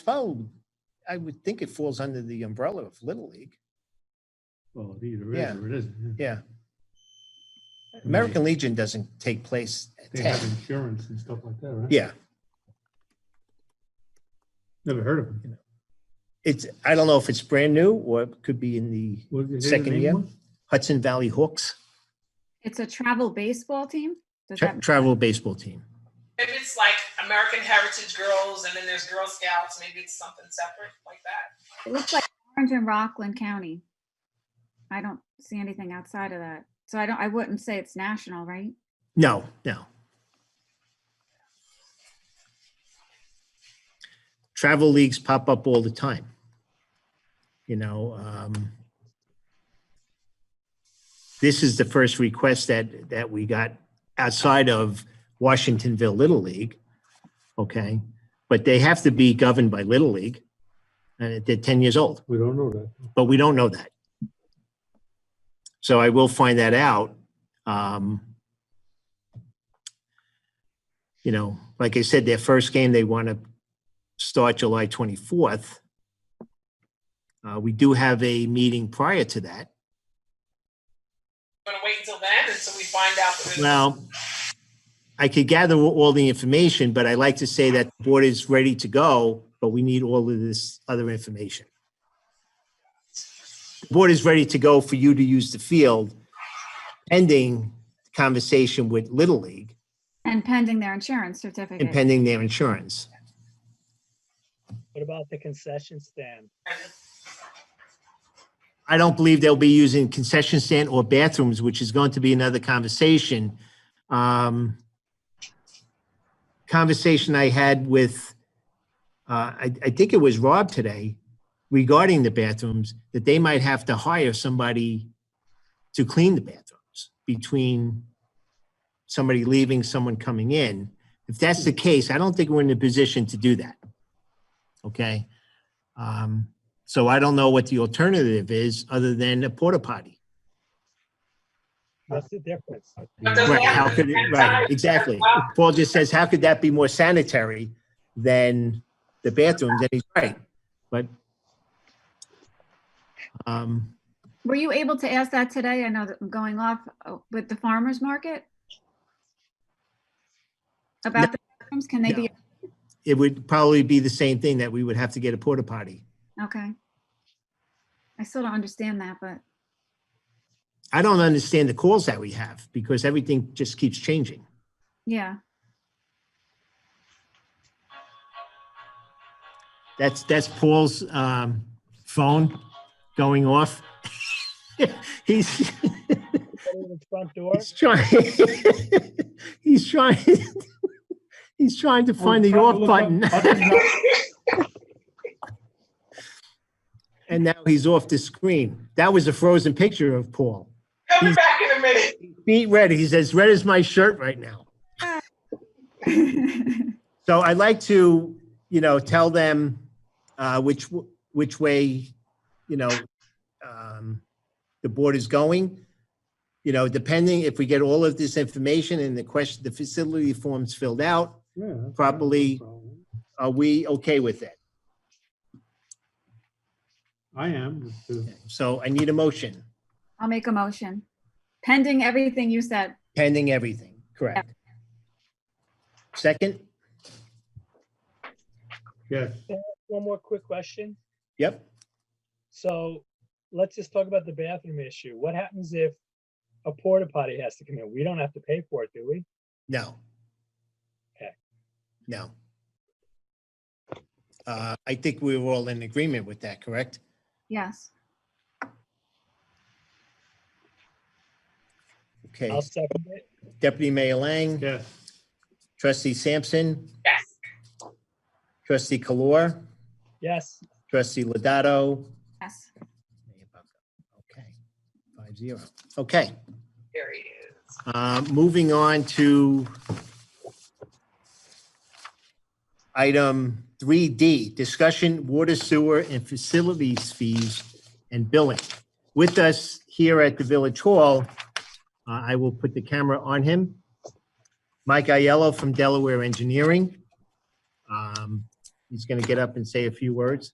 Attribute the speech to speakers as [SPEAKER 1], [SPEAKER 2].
[SPEAKER 1] Oh, I would think it falls under the umbrella of Little League.
[SPEAKER 2] Well, it either
[SPEAKER 1] Yeah.
[SPEAKER 2] is or it isn't.
[SPEAKER 1] Yeah. American Legion doesn't take place at
[SPEAKER 2] They have
[SPEAKER 1] 10.
[SPEAKER 2] insurance and stuff like that, right?
[SPEAKER 1] Yeah,
[SPEAKER 2] Never heard of them.
[SPEAKER 1] it's, I don't know if it's brand new or it could be in the
[SPEAKER 2] What- is it
[SPEAKER 1] Second
[SPEAKER 2] named
[SPEAKER 1] year?
[SPEAKER 2] one?
[SPEAKER 1] Hudson Valley Hooks
[SPEAKER 3] It's a travel baseball team? Does
[SPEAKER 1] tra-
[SPEAKER 3] that,
[SPEAKER 1] travel baseball team.
[SPEAKER 4] If it's like American Heritage Girls and then there's Girl Scouts, maybe it's something separate like that.
[SPEAKER 3] it looks like Orange and Rockland County. I don't see anything outside of that. So I don't, I wouldn't say it's national, right?
[SPEAKER 1] No, no. Travel leagues pop up all the time. You know, um, this is the first request that, that we got outside of Washingtonville Little League. Okay, but they have to be governed by Little League. And they're 10 years old
[SPEAKER 2] We don't know that.
[SPEAKER 1] but we don't know that. So I will find that out. Um, You know, like I said, their first game, they want to start July 24th. Uh, We do have a meeting prior to that.
[SPEAKER 4] You want to wait until then until we find out the results?
[SPEAKER 1] Now, I could gather all the information, but I like to say that the board is ready to go, but we need all of this other information. The Board is ready to go for you to use the field pending conversation with Little League
[SPEAKER 3] And pending their insurance
[SPEAKER 1] and
[SPEAKER 3] certificate.
[SPEAKER 1] pending their insurance.
[SPEAKER 5] What about the concession stand?
[SPEAKER 1] I don't believe they'll be using concession stand or bathrooms, which is going to be another conversation. Um, Conversation I had with, uh, I, I think it was Rob today regarding the bathrooms, that they might have to hire somebody to clean the bathrooms between somebody leaving, someone coming in. If that's the case, I don't think we're in a position to do that. Okay? Um, so I don't know what the alternative is other than a porta potty.
[SPEAKER 5] What's the difference?
[SPEAKER 4] But does
[SPEAKER 1] Right,
[SPEAKER 4] that-
[SPEAKER 1] how could it, right, exactly. Paul just says, how could that be more sanitary than the bathrooms? And he's right, but. Um,
[SPEAKER 3] Were you able to ask that today? I know that I'm going off uh, with the farmer's market? About the bathrooms, can they
[SPEAKER 1] No.
[SPEAKER 3] be,
[SPEAKER 1] it would probably be the same thing that we would have to get a porta potty.
[SPEAKER 3] okay. I still don't understand that, but
[SPEAKER 1] I don't understand the calls that we have because everything just keeps changing.
[SPEAKER 3] yeah,
[SPEAKER 1] That's, that's Paul's, um, phone going off. He's,
[SPEAKER 5] Put it in the Front door?
[SPEAKER 1] He's trying. he's trying. he's trying to find the off button, and now he's off the screen. That was a frozen picture of Paul.
[SPEAKER 4] Coming back in a minute.
[SPEAKER 1] Beat red. He's as red as my shirt right now. So I'd like to, you know, tell them uh, which w- which way, you know, um, the board is going. You know, depending if we get all of this information and the question, the facility forms filled out,
[SPEAKER 2] Yeah.
[SPEAKER 1] Probably- Are we okay with that?
[SPEAKER 2] I am. it's, uh,
[SPEAKER 1] So I need a motion
[SPEAKER 3] I'll make a motion. Pending everything you said.
[SPEAKER 1] pending everything, correct? Second?
[SPEAKER 2] Yes,
[SPEAKER 5] One more quick question.
[SPEAKER 1] Yep.
[SPEAKER 5] So let's just talk about the bathroom issue. What happens if a porta potty has to come in? We don't have to pay for it, do we?
[SPEAKER 1] No.
[SPEAKER 5] Okay.
[SPEAKER 1] No. Uh, I think we were all in agreement with that, correct?
[SPEAKER 3] Yes.
[SPEAKER 1] Okay.
[SPEAKER 5] I'll second it.
[SPEAKER 1] Deputy Mayor Lang,
[SPEAKER 2] yes.
[SPEAKER 1] trustee Sampson,
[SPEAKER 4] Yes.
[SPEAKER 1] trustee Kalor,
[SPEAKER 5] Yes,
[SPEAKER 1] trustee Ladato.
[SPEAKER 3] Yes.
[SPEAKER 1] Okay, five zero. Okay.
[SPEAKER 4] There he is.
[SPEAKER 1] Uh, Moving on to item 3D, discussion water sewer and facilities fees and billing. With us here at the Village Hall, uh, I will put the camera on him. Mike Aiello from Delaware Engineering. Um, He's going to get up and say a few words.